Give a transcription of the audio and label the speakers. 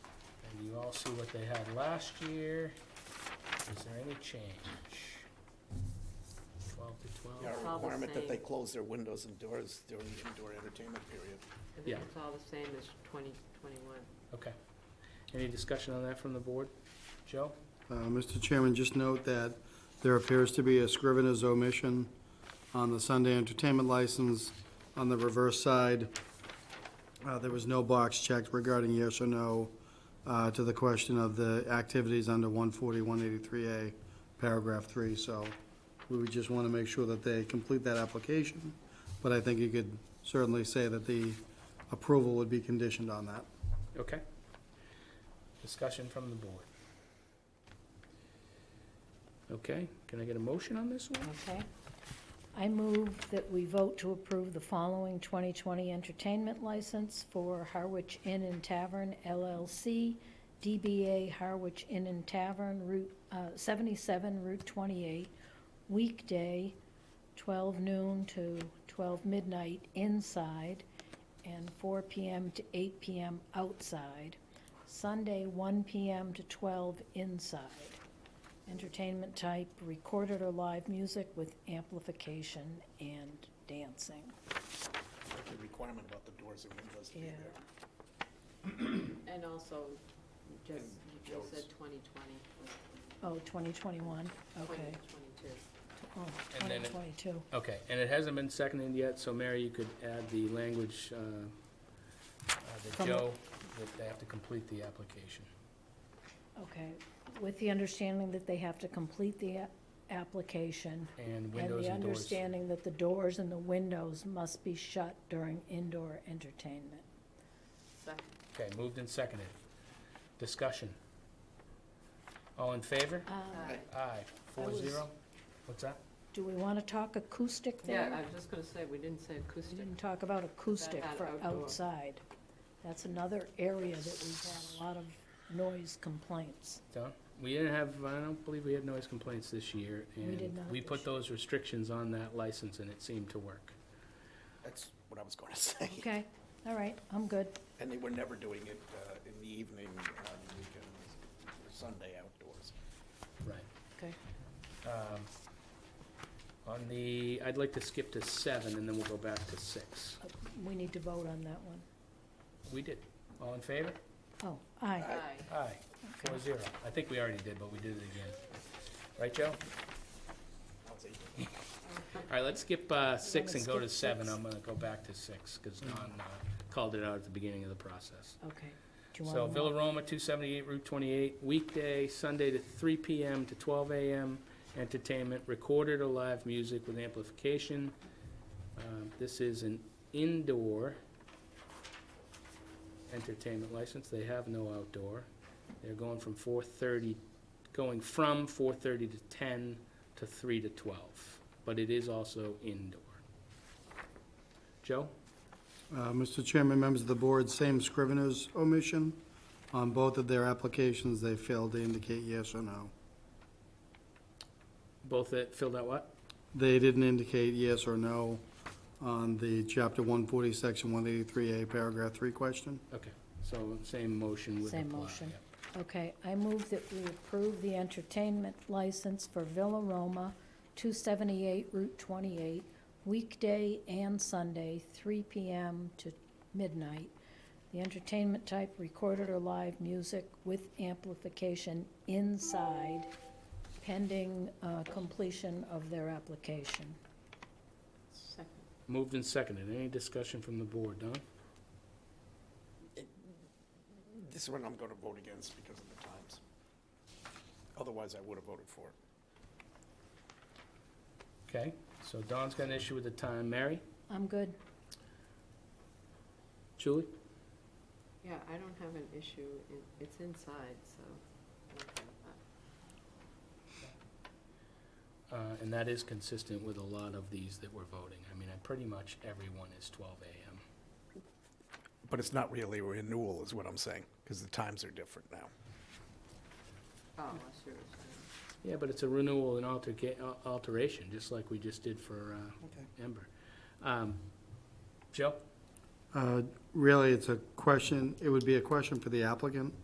Speaker 1: all see what they had last year. Is there any change? Twelve to
Speaker 2: Yeah,
Speaker 1: twelve?
Speaker 2: a
Speaker 3: It's all the
Speaker 2: requirement that they
Speaker 3: same.
Speaker 2: close their windows and doors during the indoor entertainment period.
Speaker 3: I
Speaker 1: Yeah.
Speaker 3: think it's all the same as twenty twenty-one.
Speaker 1: Okay. Any discussion on that from the board? Joe?
Speaker 4: Uh, Mr. Chairman, just note that there appears to be a scrivener's omission on the Sunday entertainment license. On the reverse side, uh, there was no box checked regarding yes or no uh, to the question of the activities under 140, 183A, paragraph 3. So we would just want to make sure that they complete that application. But I think you could certainly say that the approval would be conditioned on that.
Speaker 1: Okay. Discussion from the board. Okay, can I get a motion on this one?
Speaker 5: Okay. I move that we vote to approve the following 2020 entertainment license for Harwich Inn and Tavern LLC, DBA Harwich Inn and Tavern, Route uh, 77, Route 28, weekday, 12 noon to 12 midnight inside, and 4 PM to 8 PM outside, Sunday, 1 PM to 12 inside. Entertainment type, recorded or live music with amplification and dancing.
Speaker 2: The requirement about the doors and windows to be
Speaker 5: Yeah.
Speaker 2: there.
Speaker 3: And also, you just, you
Speaker 2: And
Speaker 3: just said
Speaker 2: Joe's.
Speaker 3: 2020,
Speaker 5: Oh, 2021, okay.
Speaker 3: 2022.
Speaker 5: Oh,
Speaker 1: And then it-
Speaker 5: 2022.
Speaker 1: Okay, and it hasn't been seconded yet, so Mary, you could add the language, uh, uh, that
Speaker 5: From the-
Speaker 1: Joe, that they have to complete the application.
Speaker 5: Okay, with the understanding that they have to complete the a- application.
Speaker 1: And
Speaker 5: And
Speaker 1: windows
Speaker 5: the
Speaker 1: and doors.
Speaker 5: understanding that the doors and the windows must be shut during indoor entertainment.
Speaker 3: Second,
Speaker 1: Okay, moved and seconded. Discussion. All in favor?
Speaker 3: aye.
Speaker 1: Aye, four
Speaker 5: was-
Speaker 1: zero. What's that?
Speaker 5: Do we want to talk acoustic there?
Speaker 3: Yeah, I was just gonna say, we didn't say
Speaker 5: We
Speaker 3: acoustic.
Speaker 5: didn't talk about acoustic
Speaker 3: About
Speaker 5: for
Speaker 3: outdoor.
Speaker 5: outside. That's another area that we've had a lot of noise complaints.
Speaker 1: Done? We didn't have, I don't believe we had noise complaints this year.
Speaker 5: We
Speaker 1: and
Speaker 5: did not
Speaker 1: We
Speaker 5: this
Speaker 1: put
Speaker 5: year.
Speaker 1: those restrictions on that license and it seemed to work.
Speaker 2: That's what I was going to say.
Speaker 5: Okay, all right, I'm good.
Speaker 2: And they were never doing it uh, in the evening, on the weekends, or Sunday outdoors.
Speaker 1: Right.
Speaker 5: Okay.
Speaker 1: Um, On the, I'd like to skip to seven and then we'll go back to six.
Speaker 5: We need to vote on that one.
Speaker 1: We did. All in favor?
Speaker 5: Oh, aye.
Speaker 1: Uh,
Speaker 3: Aye.
Speaker 1: Aye, four zero. I think we already did, but we did it again. Right, Joe?
Speaker 2: I'll take it.
Speaker 1: All right, let's skip uh, six and go to
Speaker 5: skip
Speaker 1: seven.
Speaker 5: six?
Speaker 1: I'm gonna go back to six, because Don uh, called it out at the beginning of the process.
Speaker 5: Okay. Do you
Speaker 1: So
Speaker 5: want to?
Speaker 1: Villa Roma, two seventy-eight Route twenty-eight, weekday, Sunday to three PM to twelve AM, entertainment, recorded or live music with amplification. Um, This is an indoor entertainment license, they have no outdoor. They're going from four thirty, going from four thirty to ten to three to twelve, but it is also indoor. Joe?
Speaker 4: Uh, Mr. Chairman, members of the board, same Scrivener's omission. On both of their applications, they failed to indicate yes or no.
Speaker 1: Both that filled out what?
Speaker 4: They didn't indicate yes or no on the Chapter 140, Section 183A, Paragraph 3 question.
Speaker 1: Okay, so same motion would apply.
Speaker 5: Same motion.
Speaker 1: yeah.
Speaker 5: Okay, I move that we approve the entertainment license for Villa Roma, 278 Route 28, weekday and Sunday, 3 PM to midnight. The entertainment type recorded or live music with amplification inside pending uh, completion of their application.
Speaker 3: Second.
Speaker 1: Moved and seconded. Any discussion from the board, Don?
Speaker 2: This one I'm going to vote against because of the times. Otherwise, I would have voted for it.
Speaker 1: Okay, so Don's got an issue with the time. Mary?
Speaker 5: I'm good.
Speaker 1: Julie?
Speaker 3: Yeah, I don't have an issue, in- it's inside, so. okay, uh,
Speaker 1: Uh, and that is consistent with a lot of these that we're voting. I mean, I pretty much everyone is twelve AM.
Speaker 2: But it's not really a renewal, is what I'm saying, because the times are different now.
Speaker 3: Oh, I see what you're saying.
Speaker 1: Yeah, but it's a renewal and alterca- al- alteration, just like we just did for,
Speaker 2: Okay.
Speaker 1: uh, Ember. Um, Joe?
Speaker 4: Uh, Really, it's a question, it would be a question for the applicant.